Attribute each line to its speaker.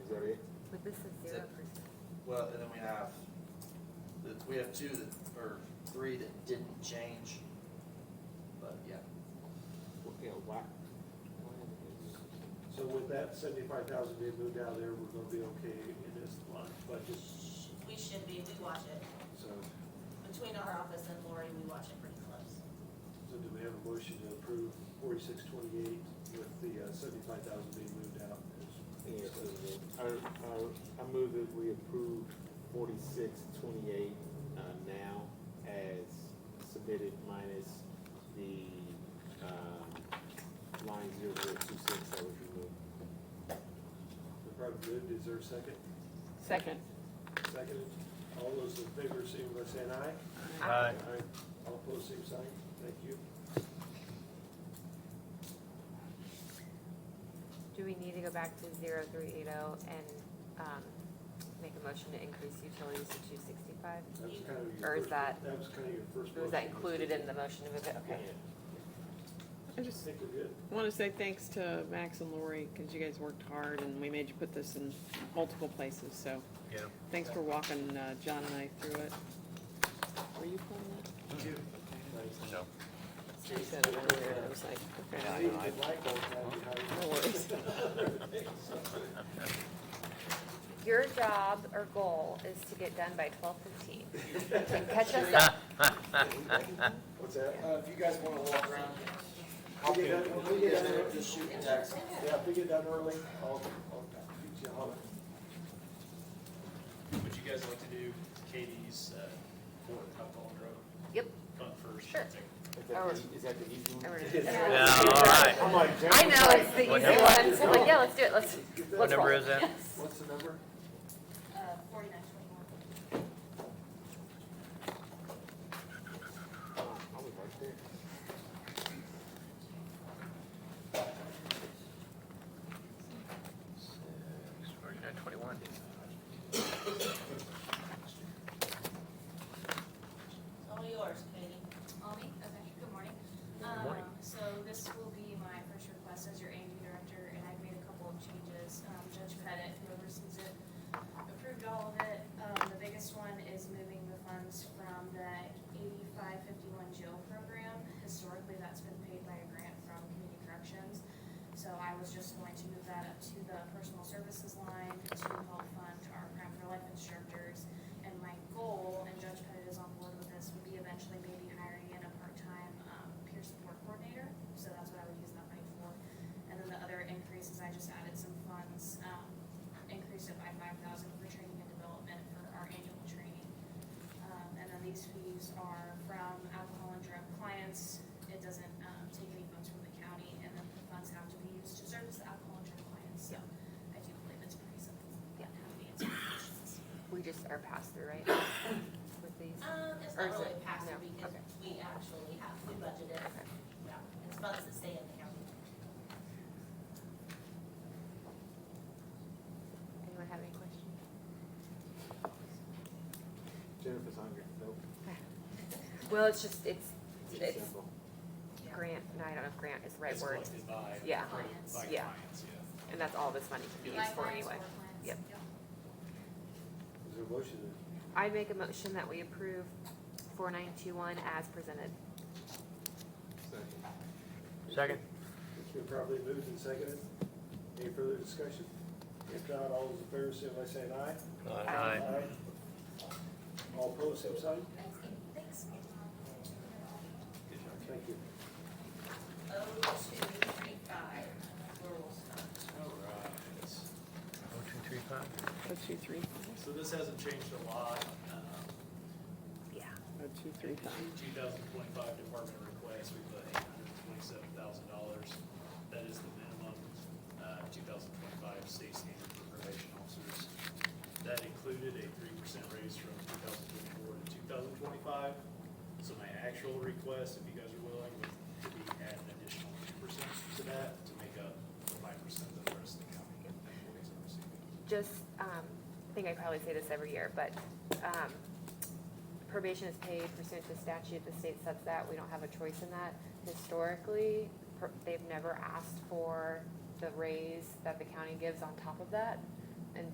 Speaker 1: Well, and then we have, the- we have two that, or three that didn't change, but yeah.
Speaker 2: you know, whack.
Speaker 3: So with that seventy-five thousand being moved out of there, we're gonna be okay in this line budget,
Speaker 4: We should be, we watch it.
Speaker 3: so,
Speaker 4: Between our office and Lori, we watch it pretty close.
Speaker 3: so do we have a motion to approve forty-six twenty-eight with the uh, seventy-five thousand being moved out?
Speaker 2: Yeah, so, I, I, I move that we approve forty-six twenty-eight, uh, now as submitted minus the, um, line zero zero two six that was removed.
Speaker 3: The property moved, is there a second?
Speaker 5: Second.
Speaker 3: Seconded, all those in favor, signify by saying aye.
Speaker 6: Uh,
Speaker 3: Aye. All opposed, same sign, thank you.
Speaker 7: Do we need to go back to zero three eight oh and, um, make a motion to increase utilities to two sixty-five?
Speaker 3: That was kind of your
Speaker 7: Or is
Speaker 3: first-
Speaker 7: that-
Speaker 3: That was kind of your first.
Speaker 7: Or was that
Speaker 3: motion.
Speaker 7: included in the motion to move it? Okay.
Speaker 5: I
Speaker 3: I
Speaker 5: just
Speaker 3: think we're good.
Speaker 5: want to say thanks to Max and Lori, because you guys worked hard, and we made you put this in multiple places, so.
Speaker 6: Yeah.
Speaker 5: Thanks for walking, uh, John and I through it. Were you pulling it?
Speaker 3: Thank you.
Speaker 6: Mm-hmm.
Speaker 3: Nice.
Speaker 6: No.
Speaker 5: She said it earlier, and I was like, okay,
Speaker 3: I
Speaker 5: I
Speaker 3: think
Speaker 5: don't know.
Speaker 3: the black ball's not behind
Speaker 5: No worries.
Speaker 7: Your job or goal is to get done by twelve fifteen and catch us up.
Speaker 3: you. What's that?
Speaker 1: Uh, if you guys wanna walk around,
Speaker 3: If we get done- if we
Speaker 1: you
Speaker 3: get
Speaker 1: guys
Speaker 3: done
Speaker 1: wanna
Speaker 3: early-
Speaker 1: just shoot me a text.
Speaker 3: Yeah, if we get done early, I'll, I'll shoot you a holler.
Speaker 8: Would you guys like to do Katie's uh, Ford Cup on Road?
Speaker 7: Yep,
Speaker 8: Come first.
Speaker 7: Sure.
Speaker 2: Is that
Speaker 7: Oh.
Speaker 2: the, E, is that the easy
Speaker 7: I
Speaker 2: one?
Speaker 7: wrote it down.
Speaker 6: Yeah, all right.
Speaker 3: I'm like,
Speaker 7: I know, it's the
Speaker 6: What
Speaker 7: easy
Speaker 6: number?
Speaker 7: one, so I'm like, yeah, let's do it, let's,
Speaker 3: Get
Speaker 6: What
Speaker 7: let's
Speaker 3: that-
Speaker 6: number
Speaker 7: roll.
Speaker 6: is that?
Speaker 3: What's the number?
Speaker 4: Uh, forty-nine twenty-one.
Speaker 2: Oh, I was right there.
Speaker 6: Forty-nine twenty-one.
Speaker 4: All Oh, yours, Katie.
Speaker 9: All me? Okay, good morning.
Speaker 2: Good morning.
Speaker 9: Um, So this will be my first request as your AV director, and I've made a couple of changes. Um, Judge Pettit, who oversees it, approved all of it. Um, The biggest one is moving the funds from the eighty-five fifty-one jail program. Historically, that's been paid by a grant from Community Corrections. So I was just going to move that up to the personal services line to help fund our crime for life instructors. And my goal, and Judge Pettit is on board with this, would be eventually maybe hiring in a part-time um, peer support coordinator. So that's what I would use that money for. And then the other increase is I just added some funds, um, increased it by five thousand for training and development for our annual training. Um, And then these fees are from alcohol and drug clients. It doesn't um, take any funds from the county, and then the funds have to be used to service the alcohol and drug clients. So I do believe it's pretty simple.
Speaker 7: Yeah.
Speaker 9: How to answer questions.
Speaker 7: We just are passed through, right? With these?
Speaker 4: Um, it's
Speaker 7: Or is
Speaker 4: not really
Speaker 7: it-
Speaker 4: passive
Speaker 7: no,
Speaker 4: because
Speaker 7: okay.
Speaker 4: we actually have, we budgeted.
Speaker 7: Okay.
Speaker 4: Yeah, it's funds that stay in the county.
Speaker 7: Anyone have any questions?
Speaker 2: Jennifer's hungry, nope.
Speaker 7: Well, it's just, it's, it's
Speaker 2: Simple.
Speaker 4: Yeah.
Speaker 7: grant, no, I don't know if grant is the right
Speaker 8: It's
Speaker 7: word,
Speaker 8: collected by-
Speaker 7: Yeah.
Speaker 9: Clients.
Speaker 8: By
Speaker 7: Yeah.
Speaker 8: clients, yeah.
Speaker 7: and that's all this money can be used for
Speaker 9: Likewise,
Speaker 7: anyway.
Speaker 9: or clients.
Speaker 7: Yep.
Speaker 3: Is there a motion?
Speaker 7: I make a motion that we approve four nine two one as presented.
Speaker 2: Second.
Speaker 6: Second?
Speaker 3: It's been properly moved and seconded. Any further discussion? If not, all those in favor, signify by saying aye.
Speaker 6: Aye.
Speaker 3: All opposed, same sign?
Speaker 9: Thanks.
Speaker 3: Thank you.
Speaker 4: Oh, two, three, five, rural stuff.
Speaker 8: All right.
Speaker 6: Oh, two, three, five?
Speaker 5: Oh, two, three,
Speaker 8: So this hasn't changed a lot. Um,
Speaker 7: Yeah.
Speaker 5: oh, two, three, five.
Speaker 8: 2025 department request, we put $827,000. That is the minimum uh, 2025 state standard for probation officers. That included a 3% raise from 2024 to 2025. So my actual request, if you guys are willing, would to be add an additional 2% to that to make up the 5% that the rest of the county employees are receiving.
Speaker 7: Just, um, I think I probably say this every year, but, um, probation is paid pursuant to statute, the state sets that, we don't have a choice in that. Historically, per- they've never asked for the raise that the county gives on top of that.